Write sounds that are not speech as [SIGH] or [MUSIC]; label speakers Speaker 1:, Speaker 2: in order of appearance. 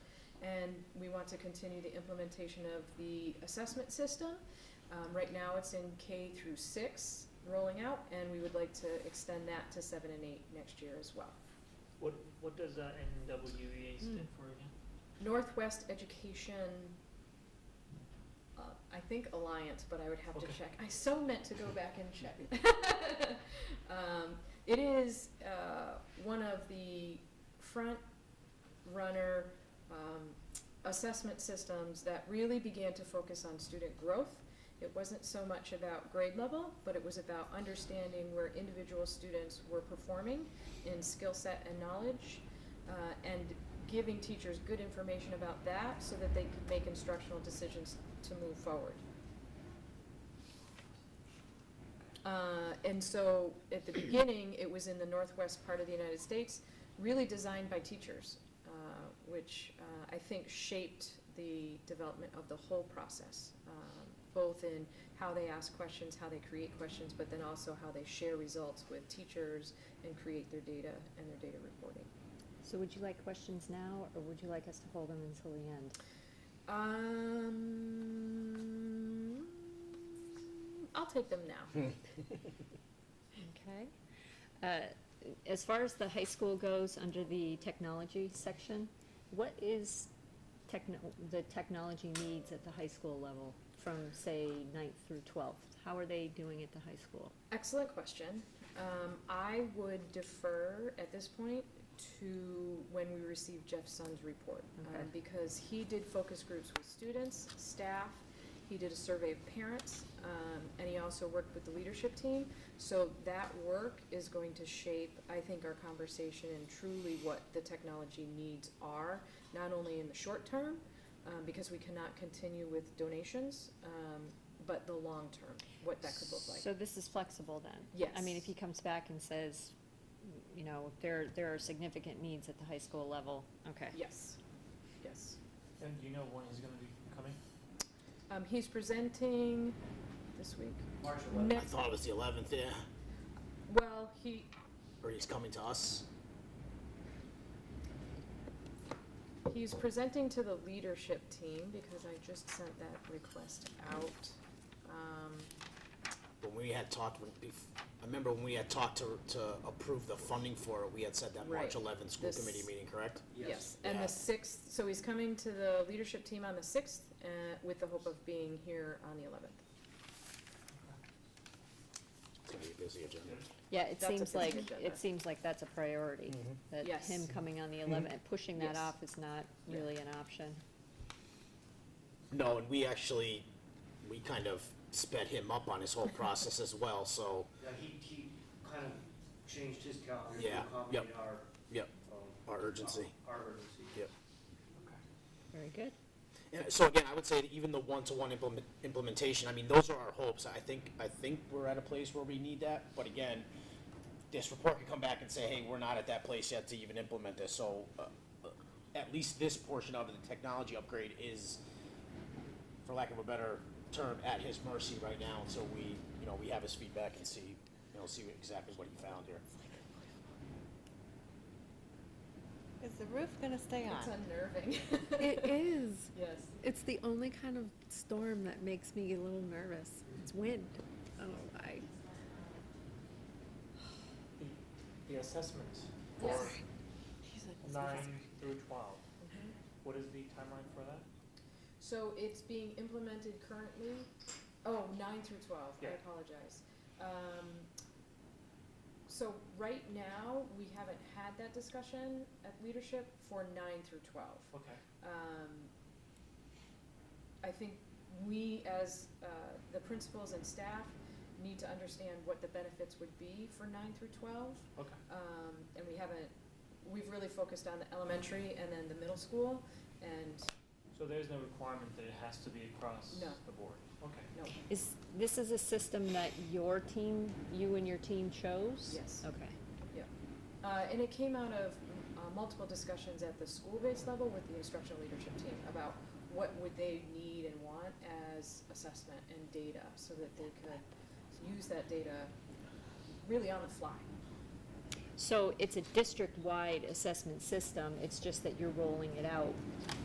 Speaker 1: and we want to continue the implementation of the assessment system. Um, right now, it's in K through six, rolling out, and we would like to extend that to seven and eight next year as well.
Speaker 2: What, what does uh, that NWEA E
Speaker 1: Hmm.
Speaker 2: stand for again?
Speaker 1: Northwest Education, uh, I think Alliance, but I would have to
Speaker 2: Okay.
Speaker 1: check. I so meant to go back and check. [LAUGHS] Um, It is uh, one of the front runner um, assessment systems that really began to focus on student growth. It wasn't so much about grade level, but it was about understanding where individual students were performing in skill set and knowledge, uh, and giving teachers good information about that so that they could make instructional decisions to move forward. Uh, and so at the beginning, it was in the northwest part of the United States, really designed by teachers, uh, which uh, I think shaped the development of the whole process, um, both in how they ask questions, how they create questions, but then also how they share results with teachers and create their data and their data reporting.
Speaker 3: So would you like questions now, or would you like us to hold them until the end?
Speaker 1: Um, I'll take them now.
Speaker 3: Okay. Uh, As far as the high school goes, under the technology section, what is techno, the technology needs at the high school level from, say, ninth through twelfth? How are they doing at the high school?
Speaker 1: Excellent question. Um, I would defer at this point to when we receive Jeff Sun's report. um,
Speaker 3: Okay.
Speaker 1: Because he did focus groups with students, staff, he did a survey of parents, um, and he also worked with the leadership team. So that work is going to shape, I think, our conversation and truly what the technology needs are, not only in the short term, um, because we cannot continue with donations, um, but the long term, what that could look like.
Speaker 3: So this is flexible then? I mean, if
Speaker 1: Yes.
Speaker 3: he comes back and says, you know, there, there are significant needs at the high school level, okay.
Speaker 1: Yes, yes.
Speaker 2: And do you know when he's gonna be coming?
Speaker 1: Um, he's presenting this week.
Speaker 4: March
Speaker 1: Ne-
Speaker 4: eleventh. I thought it was the eleventh, yeah.
Speaker 1: Well, he,
Speaker 4: Or he's coming to us.
Speaker 1: he's presenting to the leadership team because I just sent that request out. Um,
Speaker 4: But when we had talked, when, bef- I remember when we had talked to, to approve the funding for it, we had said that March
Speaker 1: Right.
Speaker 4: eleventh school
Speaker 1: This-
Speaker 4: committee meeting, correct?
Speaker 1: yes, and
Speaker 4: Yeah.
Speaker 1: the sixth, so he's coming to the leadership team on the sixth, uh, with the hope of being here on the eleventh.
Speaker 4: It's gonna be a busy agenda.
Speaker 3: Yeah, it
Speaker 1: That's a
Speaker 3: seems like,
Speaker 1: busy agenda.
Speaker 3: it seems like that's a priority, that
Speaker 1: Yes. Mm-hmm.
Speaker 3: him coming on the eleventh, pushing that
Speaker 1: Yes.
Speaker 3: off is not
Speaker 1: Yeah.
Speaker 3: really an option.
Speaker 4: No, and we actually, we kind of sped him up on his whole process as well, so,
Speaker 5: Yeah, he, he kind of changed his calendar to
Speaker 4: Yeah,
Speaker 5: accommodate
Speaker 4: yep.
Speaker 5: our.
Speaker 4: yep,
Speaker 5: um,
Speaker 4: our urgency.
Speaker 5: Our urgency.
Speaker 4: Yep.
Speaker 3: Very good.
Speaker 4: And so again, I would say that even the one-to-one implement, implementation, I mean, those are our hopes. I think, I think we're at a place where we need that, but again, this report could come back and say, hey, we're not at that place yet to even implement this, so, uh, uh, at least this portion of the technology upgrade is, for lack of a better term, at his mercy right now, until we, you know, we have his feedback and see, you know, see what- exactly what he found here.
Speaker 6: Is the roof gonna stay
Speaker 1: It's
Speaker 6: on?
Speaker 1: unnerving.
Speaker 6: It is.
Speaker 1: [LAUGHS] Yes.
Speaker 6: It's the only kind of storm that makes me a little nervous. It's wind. Oh, I.
Speaker 2: The assessments
Speaker 1: Yes.
Speaker 2: for nine through twelve.
Speaker 1: Mhm.
Speaker 2: What is the timeline for that?
Speaker 1: So it's being implemented currently, oh, nine through twelve, I
Speaker 2: Yeah.
Speaker 1: apologize. Um, so right now, we haven't had that discussion at leadership for nine through twelve.
Speaker 2: Okay.
Speaker 1: Um, I think we, as, uh, the principals and staff, need to understand what the benefits would be for nine through twelve.
Speaker 2: Okay.
Speaker 1: Um, and we haven't, we've really focused on the elementary and then the middle school, and
Speaker 2: So there's no requirement that it has to be across
Speaker 1: No.
Speaker 2: the board? Okay.
Speaker 1: no,
Speaker 3: Is, this is a system that your team, you and your team chose?
Speaker 1: Yes.
Speaker 3: Okay.
Speaker 1: Uh, and it came out of uh, multiple discussions at the school-based level with the instructional leadership team about what would they need and want as assessment and data so that they could use that data really on the fly.
Speaker 3: So it's a district-wide assessment system, it's just that you're rolling it out